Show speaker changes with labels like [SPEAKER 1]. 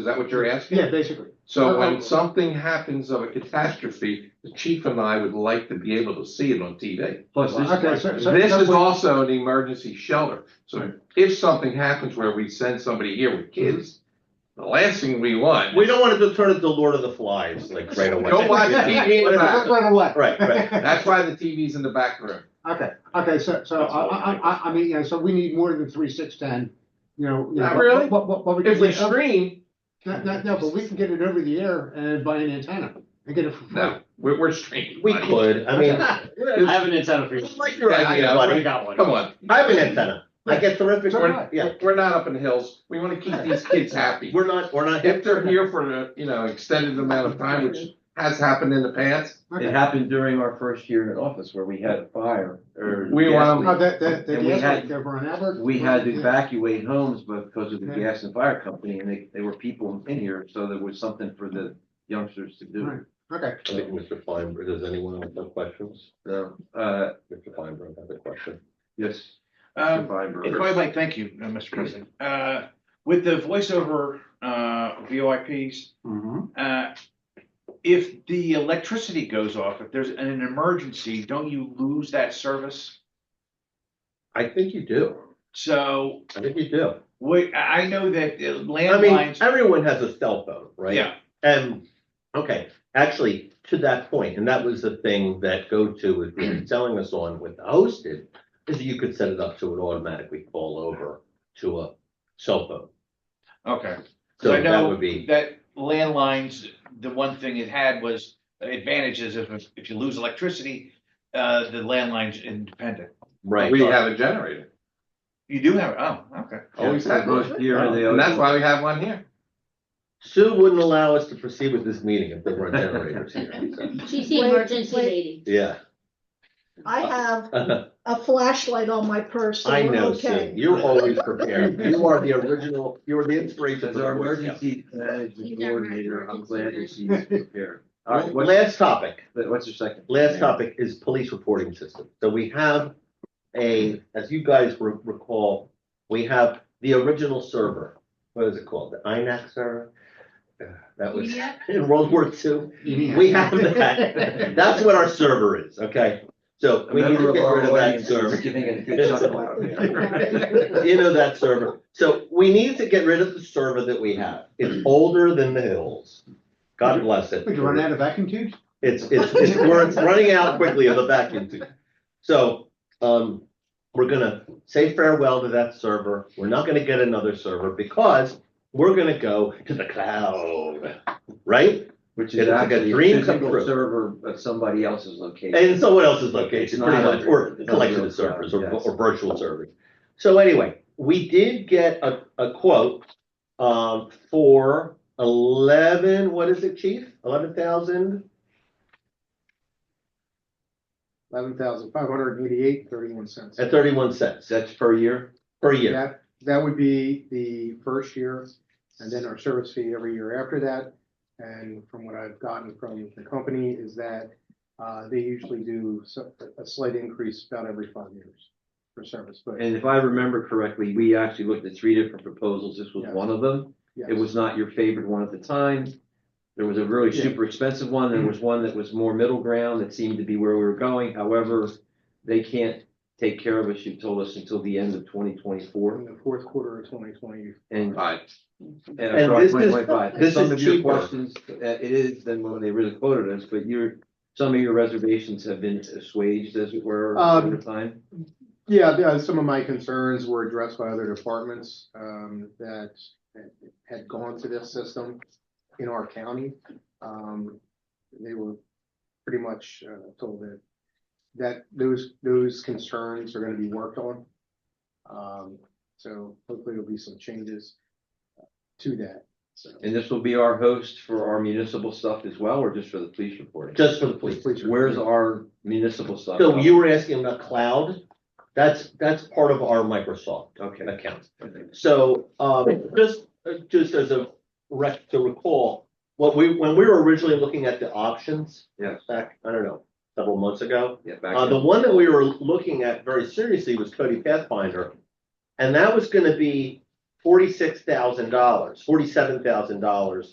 [SPEAKER 1] Is that what you're asking?
[SPEAKER 2] Yeah, basically.
[SPEAKER 1] So when something happens of a catastrophe, the chief and I would like to be able to see it on TV.
[SPEAKER 2] Plus
[SPEAKER 1] this-
[SPEAKER 2] Okay, so- so-
[SPEAKER 1] This
[SPEAKER 2] so
[SPEAKER 1] is
[SPEAKER 2] what-
[SPEAKER 1] also an emergency shelter. So if something happens where we send somebody here with kids, the last thing we want.
[SPEAKER 3] We don't want to turn it to Lord of the Flies, like right away.
[SPEAKER 1] Don't watch TV in
[SPEAKER 2] Right,
[SPEAKER 1] the back.
[SPEAKER 2] right away.
[SPEAKER 3] Right, right.
[SPEAKER 1] That's why the TV's in the back room.
[SPEAKER 2] Okay, okay, so, so, I, I, I, I mean, you know, so we need more than three, six, ten, you know. you know,
[SPEAKER 1] Not really.
[SPEAKER 2] What, what, what we
[SPEAKER 1] If
[SPEAKER 2] can
[SPEAKER 1] we
[SPEAKER 2] get, over-
[SPEAKER 1] stream,
[SPEAKER 2] no, no, no, but we can get it over the air and buy an antenna and get it for free.
[SPEAKER 1] no, we're, we're streaming.
[SPEAKER 3] We
[SPEAKER 1] buddy.
[SPEAKER 3] could, I mean,
[SPEAKER 4] I have an antenna for you.
[SPEAKER 3] like your
[SPEAKER 1] Yeah,
[SPEAKER 3] idea,
[SPEAKER 1] yeah,
[SPEAKER 4] I
[SPEAKER 3] buddy.
[SPEAKER 4] got one.
[SPEAKER 1] Come on,
[SPEAKER 3] I have an antenna. I get terrific,
[SPEAKER 2] So do I.
[SPEAKER 3] we're, yeah,
[SPEAKER 1] we're not up in the hills. We want to keep these kids happy.
[SPEAKER 3] we're not, we're not.
[SPEAKER 1] If they're here for, a, you know, extended amount of time, which has happened in the past,
[SPEAKER 5] It
[SPEAKER 2] Okay.
[SPEAKER 5] happened during our first year in office where we had a fire or.
[SPEAKER 1] We
[SPEAKER 5] gas
[SPEAKER 1] were-
[SPEAKER 2] Oh, that, that, the
[SPEAKER 5] And we
[SPEAKER 2] gas
[SPEAKER 5] had-
[SPEAKER 2] leak over on Albert.
[SPEAKER 5] leak. We had to
[SPEAKER 2] Yeah.
[SPEAKER 5] evacuate homes because of the
[SPEAKER 2] Okay.
[SPEAKER 5] gas and fire company and they, they were people in here, so there was something for the youngsters to
[SPEAKER 2] Right.
[SPEAKER 5] do.
[SPEAKER 2] Okay,
[SPEAKER 3] I think Mr. Feinberg, does anyone have no questions?
[SPEAKER 5] So, uh,
[SPEAKER 3] Mr. Feinberg has a question.
[SPEAKER 5] yes.
[SPEAKER 6] Um,
[SPEAKER 5] survivor.
[SPEAKER 6] If I might, thank you, uh, Mr. President. Uh, With the voiceover uh, VoIPs,
[SPEAKER 3] Mm-hmm.
[SPEAKER 6] uh, if the electricity goes off, if there's an emergency, don't you lose that service?
[SPEAKER 3] I think you do.
[SPEAKER 6] So
[SPEAKER 3] I think you do.
[SPEAKER 6] we, I I know that uh,
[SPEAKER 3] I mean,
[SPEAKER 6] landlines,
[SPEAKER 3] everyone has a cell phone, right?
[SPEAKER 6] yeah,
[SPEAKER 3] And, okay, actually, to that point, and that was the thing that GoTo was really selling us on with the hosted, is that you could set it up so it automatically fall over to a cell phone.
[SPEAKER 6] okay.
[SPEAKER 3] So
[SPEAKER 6] So I
[SPEAKER 3] that
[SPEAKER 6] know
[SPEAKER 3] would be,
[SPEAKER 6] that landlines, the one thing it had was advantages if, if you lose electricity, uh, the landline's independent.
[SPEAKER 3] right.
[SPEAKER 1] we have a generator.
[SPEAKER 6] You do have, oh, okay.
[SPEAKER 1] Always
[SPEAKER 5] Yeah,
[SPEAKER 1] have
[SPEAKER 5] for
[SPEAKER 1] one.
[SPEAKER 5] Most year they
[SPEAKER 1] And that's
[SPEAKER 5] always-
[SPEAKER 1] why we have one here.
[SPEAKER 3] Sue wouldn't allow us to proceed with this meeting if there weren't generators here. so,
[SPEAKER 7] She's the
[SPEAKER 8] Wait,
[SPEAKER 7] emergency
[SPEAKER 8] wait.
[SPEAKER 7] lady.
[SPEAKER 3] Yeah.
[SPEAKER 8] I have a flashlight on my purse, so
[SPEAKER 3] I
[SPEAKER 8] we're
[SPEAKER 3] know, Sue.
[SPEAKER 8] okay.
[SPEAKER 3] You're always prepared. You are the original, you were the inspiration
[SPEAKER 5] As
[SPEAKER 3] for
[SPEAKER 5] our
[SPEAKER 3] the Boy Scout.
[SPEAKER 5] emergency management
[SPEAKER 7] He's our
[SPEAKER 5] coordinator, I'm
[SPEAKER 7] emergency
[SPEAKER 5] glad that she's prepared. All right, what's,
[SPEAKER 3] Last topic.
[SPEAKER 5] what's your second?
[SPEAKER 3] Last topic is police reporting system. So we have a, as you guys re- recall, we have the original server. What is it called? The INAC server? Uh, That was
[SPEAKER 7] Yep.
[SPEAKER 3] in World War II.
[SPEAKER 2] EDF.
[SPEAKER 3] We have that. That's what our server is, okay? So
[SPEAKER 5] A
[SPEAKER 3] we need
[SPEAKER 5] member
[SPEAKER 3] to
[SPEAKER 5] of
[SPEAKER 3] get
[SPEAKER 5] our
[SPEAKER 3] rid of that
[SPEAKER 5] audience is
[SPEAKER 3] server.
[SPEAKER 5] Giving it a good chuckle out there.
[SPEAKER 3] You know that server. So we need to get rid of the server that we have. It's older than the hills. God bless it.
[SPEAKER 2] Would you run out of vacuum tubes?
[SPEAKER 3] It's, it's, it's, we're it's running out quickly of the vacuum tube. So, um, we're gonna say farewell to that server. We're not gonna get another server because we're gonna go to the cloud, right?
[SPEAKER 5] Which
[SPEAKER 3] It's
[SPEAKER 5] is
[SPEAKER 3] like a
[SPEAKER 5] actually a
[SPEAKER 3] dream come
[SPEAKER 5] physical
[SPEAKER 3] true.
[SPEAKER 5] server at somebody else's location.
[SPEAKER 3] And someone else's
[SPEAKER 5] It's
[SPEAKER 3] location,
[SPEAKER 5] not
[SPEAKER 3] pretty
[SPEAKER 5] a-
[SPEAKER 3] much, or
[SPEAKER 5] it's not
[SPEAKER 3] collection
[SPEAKER 5] real
[SPEAKER 3] of servers
[SPEAKER 5] cloud,
[SPEAKER 3] or,
[SPEAKER 5] yes.
[SPEAKER 3] or virtual servers. So anyway, we did get a, a quote, um, for eleven, what is it, chief? Eleven thousand?
[SPEAKER 9] eleven thousand five hundred eighty-eight thirty-one cents.
[SPEAKER 3] At thirty-one cents
[SPEAKER 5] That's per year?
[SPEAKER 3] per year.
[SPEAKER 9] That, that would be the first year, and then our service fee every year after that. And from what I've gotten from the company is that, uh, they usually do so- a slight increase about every five years for service, but.
[SPEAKER 5] And if I remember correctly, we actually looked at three different proposals. This was
[SPEAKER 9] Yeah.
[SPEAKER 5] one of them. It
[SPEAKER 9] yes.
[SPEAKER 5] was not your favorite one at the time. There was a really
[SPEAKER 9] Yeah.
[SPEAKER 5] super expensive one. There was one that was more middle ground that seemed to be where we were going. However, they can't take care of us, you told us, until the end of twenty twenty-four.
[SPEAKER 9] In the fourth quarter of twenty twenty,
[SPEAKER 5] And
[SPEAKER 1] Right.
[SPEAKER 3] And this is- this
[SPEAKER 5] Some
[SPEAKER 3] is
[SPEAKER 5] of your
[SPEAKER 3] cheaper.
[SPEAKER 5] questions, uh, it is than what they really quoted us, but your, some of your reservations have been assuaged as it were
[SPEAKER 9] Um,
[SPEAKER 5] over time.
[SPEAKER 9] Yeah, the- uh, some of my concerns were addressed by other departments um, that had gone to this system in our county. Um, They were pretty much uh, told that, that those, those concerns are gonna be worked on. Um, So hopefully there'll be some changes to that, so.
[SPEAKER 5] And this will be our host for our municipal stuff as well, or just for the police reporting?
[SPEAKER 3] Just for the police.
[SPEAKER 9] Please-
[SPEAKER 5] Where's our municipal stuff?
[SPEAKER 3] So you were asking about cloud? That's, that's part of our Microsoft
[SPEAKER 5] Okay.
[SPEAKER 3] account. So, um, just, just as a rec, to recall, what we, when we were originally looking at the options.
[SPEAKER 5] Yes.
[SPEAKER 3] Back, I don't know, several months ago.
[SPEAKER 5] Yeah, back
[SPEAKER 3] Uh, the
[SPEAKER 5] in.
[SPEAKER 3] one that we were looking at very seriously was Cody Pathfinder. And that was gonna be forty-six thousand dollars, forty-seven thousand dollars